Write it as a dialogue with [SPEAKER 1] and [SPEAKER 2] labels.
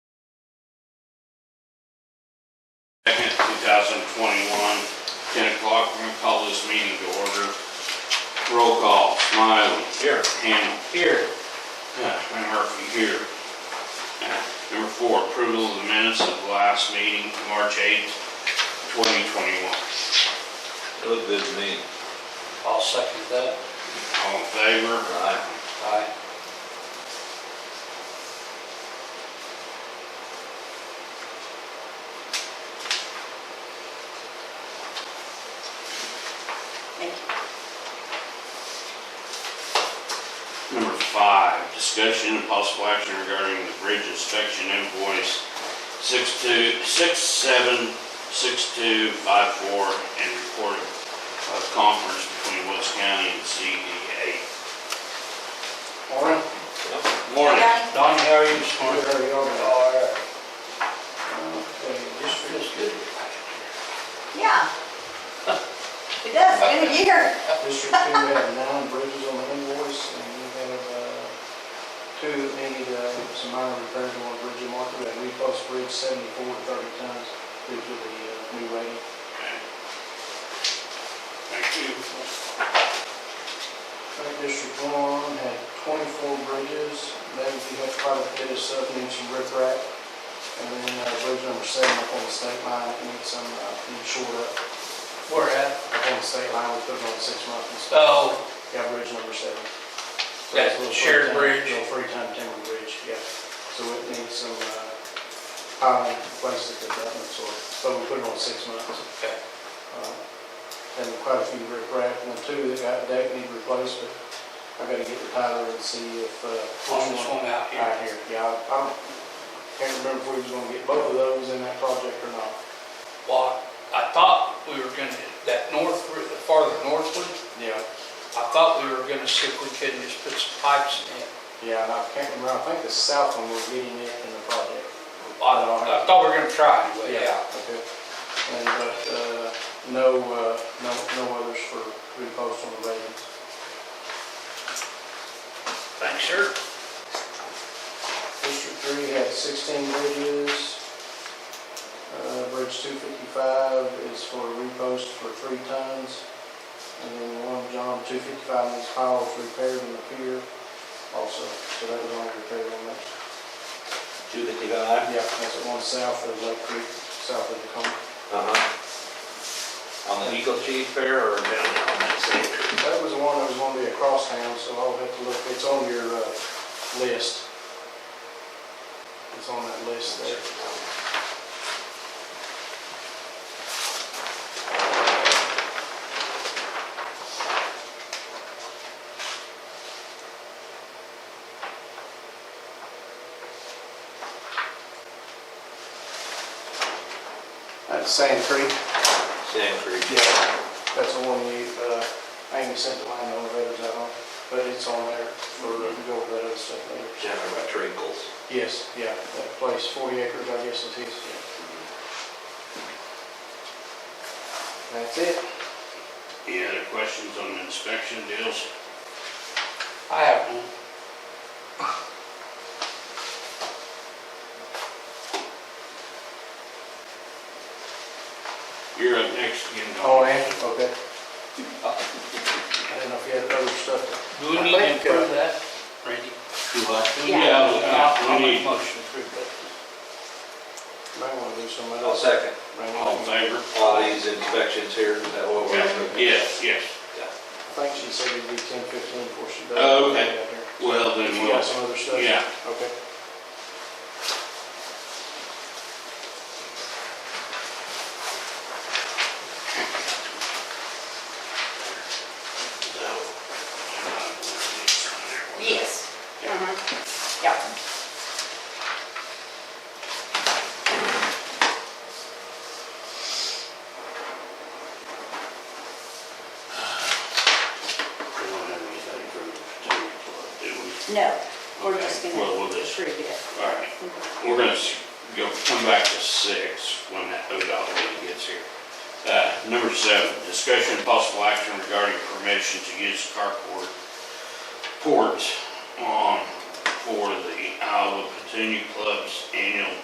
[SPEAKER 1] twenty-one, ten o'clock, we're gonna call this meeting to order. Roll call, Smiley. Here. Hamel.
[SPEAKER 2] Here.
[SPEAKER 1] Yeah, and Murphy here. Yeah. Number four, approval of the minutes of the last meeting, March eighth, twenty twenty-one.
[SPEAKER 3] Look good to me.
[SPEAKER 2] I'll second that.
[SPEAKER 1] All in favor?
[SPEAKER 3] Aye.
[SPEAKER 2] Aye.
[SPEAKER 4] Thank you.
[SPEAKER 1] Number five, discussion and possible action regarding the bridge inspection invoice six two, six seven, six two, five four, and report of conference between Woods County and CDA.
[SPEAKER 2] Morning.
[SPEAKER 1] Morning.
[SPEAKER 2] Donnie,
[SPEAKER 4] Donnie,
[SPEAKER 2] how are you this morning?
[SPEAKER 5] Where you are,
[SPEAKER 2] All right. Okay, this feels good.
[SPEAKER 4] Yeah. It does, been a year.
[SPEAKER 5] District Two, we have nine bridges on the invoice, and we have, uh, two that need, uh, some minor repairs on Bridge and Market, and we post bridge seventy-four to thirty tons due to the, uh, new rating.
[SPEAKER 1] Thank you.
[SPEAKER 5] Frank District One had twenty-four bridges, then if you have quite a bit of sub-inch and riprap, and then, uh, bridge number seven up on the state line, it needs some, uh, needs short up,
[SPEAKER 2] Where at?
[SPEAKER 5] up on the state line, we put it on six months and stuff.
[SPEAKER 2] Oh,
[SPEAKER 5] Yeah, bridge number seven.
[SPEAKER 2] That's
[SPEAKER 5] Little
[SPEAKER 2] shared
[SPEAKER 5] free-time-
[SPEAKER 2] bridge.
[SPEAKER 5] Little free-time timber bridge, yeah. So it needs some, uh, piling place at the development sort, so we put it on six months.
[SPEAKER 2] okay.
[SPEAKER 5] Uh, And quite a few rip rack, and the two that got decked need replaced, but I gotta get with Tyler and see if, uh.
[SPEAKER 2] On this one out here.
[SPEAKER 5] Right here, yeah, I- I don't, can't remember if we was gonna get both of those in that project or not.
[SPEAKER 2] Well, I thought we were gonna, that north, the farther northward,
[SPEAKER 5] Yeah.
[SPEAKER 2] I thought we were gonna see if we couldn't just put some pipes in it.
[SPEAKER 5] Yeah, and I can't remember, I think the south one was getting it in the project.
[SPEAKER 2] I I thought we were gonna try anyway, yeah.
[SPEAKER 5] Okay. And, but, uh, no, uh, no, no others for repost on the ratings.
[SPEAKER 2] Thanks, sir.
[SPEAKER 5] District three had sixteen bridges. Uh, bridge two fifty-five is for repost for three tons. And then one, John, two fifty-five is piles repaired in the pier also, so that was only repaired on that.
[SPEAKER 3] Two fifty-five?
[SPEAKER 5] Yeah, that's the one south of Lake Creek, south of Tacoma.
[SPEAKER 3] Uh-huh. On the Eagle Chief Fair or down Uh-huh. on that same?
[SPEAKER 5] That was the one that was gonna be a crosstown, so I'll have to look, it's on your, uh, list. It's on that list there. That's Sand Creek.
[SPEAKER 3] Sand Creek.
[SPEAKER 5] Yeah, that's the one you, uh, Amy sent the line elevators out on, but it's on there for,
[SPEAKER 1] Mm-hmm.
[SPEAKER 5] to go over that other stuff later.
[SPEAKER 3] Down there by Trinkles.
[SPEAKER 5] Yes, yeah, that place, forty acres, I guess is his, yeah. That's it.
[SPEAKER 1] Any other questions on the inspection deals?
[SPEAKER 2] I have one.
[SPEAKER 1] You're up next again, Don.
[SPEAKER 5] Oh, and, okay. I didn't know if you had other stuff.
[SPEAKER 2] Do we need to approve that, Randy?
[SPEAKER 1] Yeah,
[SPEAKER 2] I'll
[SPEAKER 1] yeah, we
[SPEAKER 2] make a
[SPEAKER 1] need,
[SPEAKER 2] motion to approve that.
[SPEAKER 5] Might wanna do some
[SPEAKER 3] I'll
[SPEAKER 5] else.
[SPEAKER 3] second.
[SPEAKER 5] Might
[SPEAKER 1] all in favor?
[SPEAKER 5] wanna-
[SPEAKER 3] All these inspections here, is that what we're
[SPEAKER 1] Yeah,
[SPEAKER 3] doing?
[SPEAKER 1] Yes, yes.
[SPEAKER 5] I think she said it'd be ten fifteen before she does.
[SPEAKER 1] Oh, okay.
[SPEAKER 5] Yeah, here.
[SPEAKER 1] Well, then
[SPEAKER 5] You
[SPEAKER 1] we'll,
[SPEAKER 5] got some other stuff?
[SPEAKER 1] yeah.
[SPEAKER 5] Okay.
[SPEAKER 4] Yes. Uh-huh. Yeah.
[SPEAKER 1] We don't have anything for the two report, do we?
[SPEAKER 4] No, we're just
[SPEAKER 1] Okay,
[SPEAKER 4] gonna
[SPEAKER 1] Well, we'll just,
[SPEAKER 4] approve it.
[SPEAKER 1] all right. We're gonna s- go, come back to six when that ODOT lady gets here. Uh, number seven, discussion and possible action regarding permission to use carport port on for the Iowa Petunia Club's annual